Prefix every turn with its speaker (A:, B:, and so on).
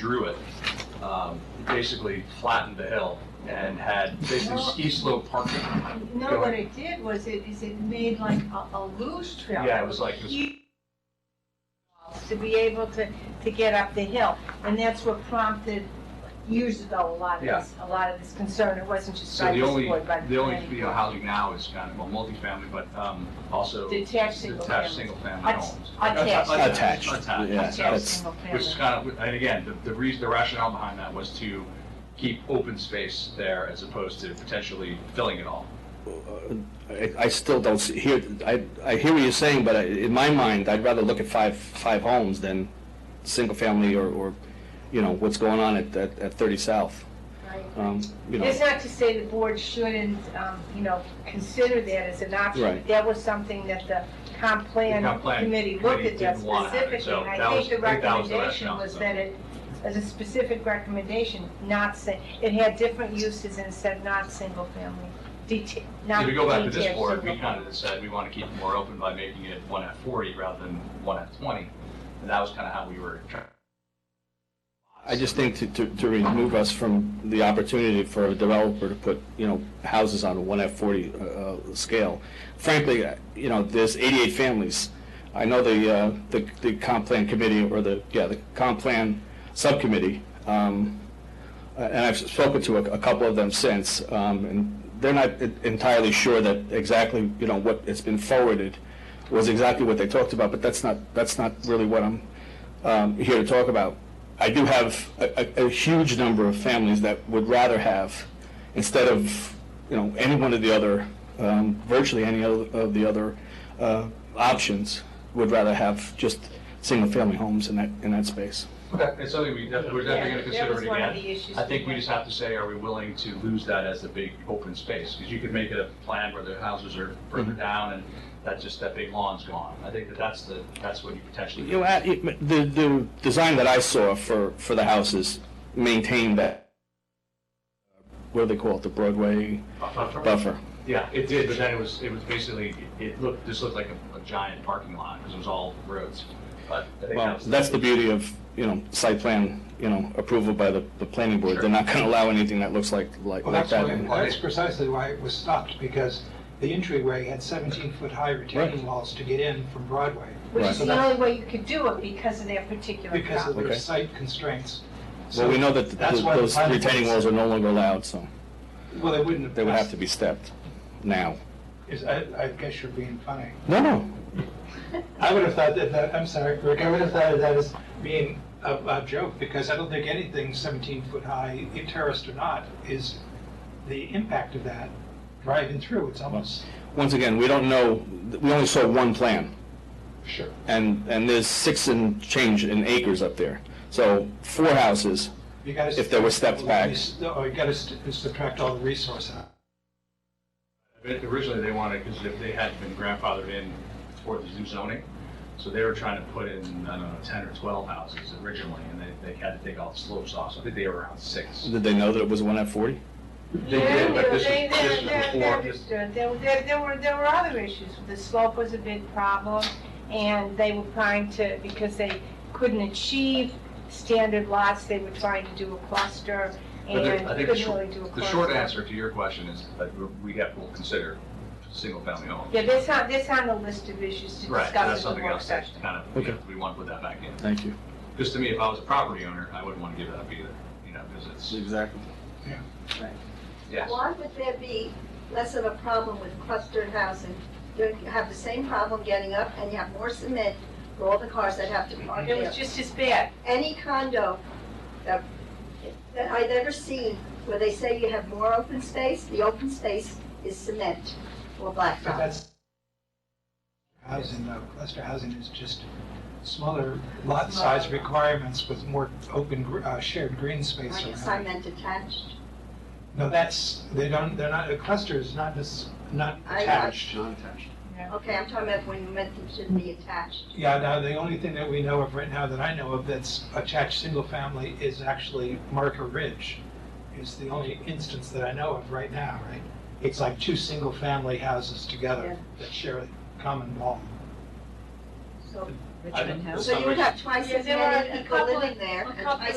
A: drew it, um, it basically flattened the hill and had basically
B: No.
A: ski slope parking.
B: No, what it did was it, is it made like a, a loose trail.
A: Yeah, it was like this-
B: Huge walls To be able to, to get up the hill, and that's what prompted years ago, a lot of this, a lot of this concern, it wasn't just
A: So
B: by
A: the
B: this
A: only,
B: board, but.
A: the only, you know, housing now is kind of, well, multifamily, but um, also
B: Detached single
A: detached
B: family.
A: single-family
B: Att-
A: homes. Attached.
B: attached.
C: Attached,
A: Attached. So-
C: yeah,
B: Attached
C: that's-
B: single
A: Which is kind
B: family.
A: of, and again, the, the reason, the rationale behind that was to keep open space there as opposed to potentially filling it all.
C: I, I still don't see, hear, I, I hear what you're saying, but I- in my mind, I'd rather look at five, five homes than single-family or, or, you know, what's going on at, at at 30 South.
B: Right.
C: Um, You know,
B: It's not to say the board shouldn't, um, you know, consider that as an option.
C: Right.
B: That was something that the comp plan
A: The comp plan
B: committee looked
A: committee
B: at that
A: didn't want it,
B: specifically.
A: so that
B: and I
A: was-
B: think the
A: I think that was the
B: recommendation
A: rationale.
B: was that it, as a specific recommendation, not, sa- it had different uses and said not single family, deta- not
A: If we go back to this
B: detached
A: board, we
B: single
A: kind of
B: family.
A: decided we want to keep it more open by making it one at forty rather than one at twenty. And that was kind of how we were trying.
C: I just think to, to, to remove us from the opportunity for a developer to put, you know, houses on a one F forty, uh, uh, scale. Frankly, uh, you know, there's eighty-eight families. I know the, uh, the, the comp plan committee or the, yeah, the comp plan subcommittee, um, uh, and I've spoken to a, a couple of them since, um, and they're not en- entirely sure that exactly, you know, what has been forwarded was exactly what they talked about, but that's not, that's not really what I'm, um, here to talk about. I do have a, a, a huge number of families that would rather have, instead of, you know, any one of the other, um, virtually any other, of the other, uh, options, would rather have just single-family homes in that, in that space.
A: It's something we definitely, we're definitely going to
B: Yeah, that
A: consider
B: was
A: it
B: one of
A: again.
B: the issues
A: I think
B: we
A: we
B: had.
A: just have to say, are we willing to lose that as a big open space? Because you could make it a plan where the houses are further
C: Mm-hmm.
A: down and that's just, that big lawn's gone. I think that that's the, that's what you potentially.
C: You know, at- it- the, the design that I saw for, for the houses maintained that, what do they call it, the Broadway buffer?
A: Yeah, it did, but then it was, it was basically, it looked, this looked like a, a giant parking lot because it was all roads. But I think
C: Well,
A: that was,
C: that's the beauty of, you know, site plan, you know, approval by the, the planning board.
A: Sure.
C: They're not gonna allow anything that looks like, like
D: Well,
C: like
D: that's
C: that.
D: why, that's precisely why it was stopped, because the entryway had 17-foot high retaining
C: Right.
D: walls to get in from Broadway.
B: Which is
D: So
B: the
D: that's
B: only way you could do it because of that particular
D: Because of
B: problem.
D: their
C: Okay.
D: site constraints.
C: Well, we know that the-
D: That's why the
C: those
D: planning
C: retaining
D: board
C: walls are no longer allowed, so
D: said- Well, they wouldn't have.
C: they would have to be stepped now.
D: Is, I, I guess you're being funny.
C: No, no,
D: I would have thought that, that, I'm sorry, Rick, I would have thought of that as being a, a joke, because I don't think anything 17-foot high, terraced or not, is the impact of that driving through. It's almost,
C: once again, we don't know, we only saw one plan.
D: sure.
C: And, and there's six and change in acres up there. So four houses,
D: You gotta
C: If there were steps back.
D: Oh, you gotta st- subtract all the resource out.
A: originally they wanted, because they had been grandfathered in for the new zoning. So they were trying to put in, I don't know, ten or twelve houses originally, and they, they had to take all the slopes off. So I think they were around six.
C: did they know that it was one at 40?
A: They
B: Yeah,
A: did, but
B: there-
A: this was-
B: they-
A: this
B: there-
A: was
B: there-
A: before
B: there-
A: this-
B: There, there, there were, there were other issues. The slope was a big problem, and they were trying to, because they couldn't achieve standard lots, they were trying to do a cluster,
A: But
B: and
A: the- I think the
B: couldn't
A: shor-
B: really do a cluster.
A: The short answer to your question is that we're- we have, we'll consider single-family homes.
B: Yeah, that's on, that's on the list of issues to
A: Right, that's
B: discuss in the
A: something
B: work
A: else that
B: session.
A: kind of, we-
C: Okay.
A: we want to put that back in.
C: Thank you.
A: Because to me, if I was a property owner, I wouldn't want to give that up either, you know, because it's,
C: Exactly.
A: yeah.
E: Why would there be less of a problem with clustered housing? You have the same problem getting up, and you have more cement for all the cars that have to park
B: It
E: there.
B: was just as bad.
E: Any condo that, that I've ever seen where they say you have more open space, the open space is cement or
D: But
E: blacktop.
D: that's, housing, though, cluster housing is just smaller lot size requirements with more open, gr- uh, shared green space
E: Are you
D: around.
E: cement attached?
D: No, that's, they don't, they're not, a cluster is not, just not
E: I- I-
D: attached.
E: Okay, I'm talking about when you meant them shouldn't be attached.
D: Yeah, now, the only thing that we know of right now, that I know of, that's attached single family is actually Marker Ridge. Is the only instance that I know of right now, right? It's like two single family houses together that share a common wall.
E: So
A: Richmond
E: so you would have twice
B: Yeah,
E: as
B: there were
E: many
B: a
E: people
B: couple
E: living
B: of-
E: there
B: a
E: and
B: couple
E: twice
B: of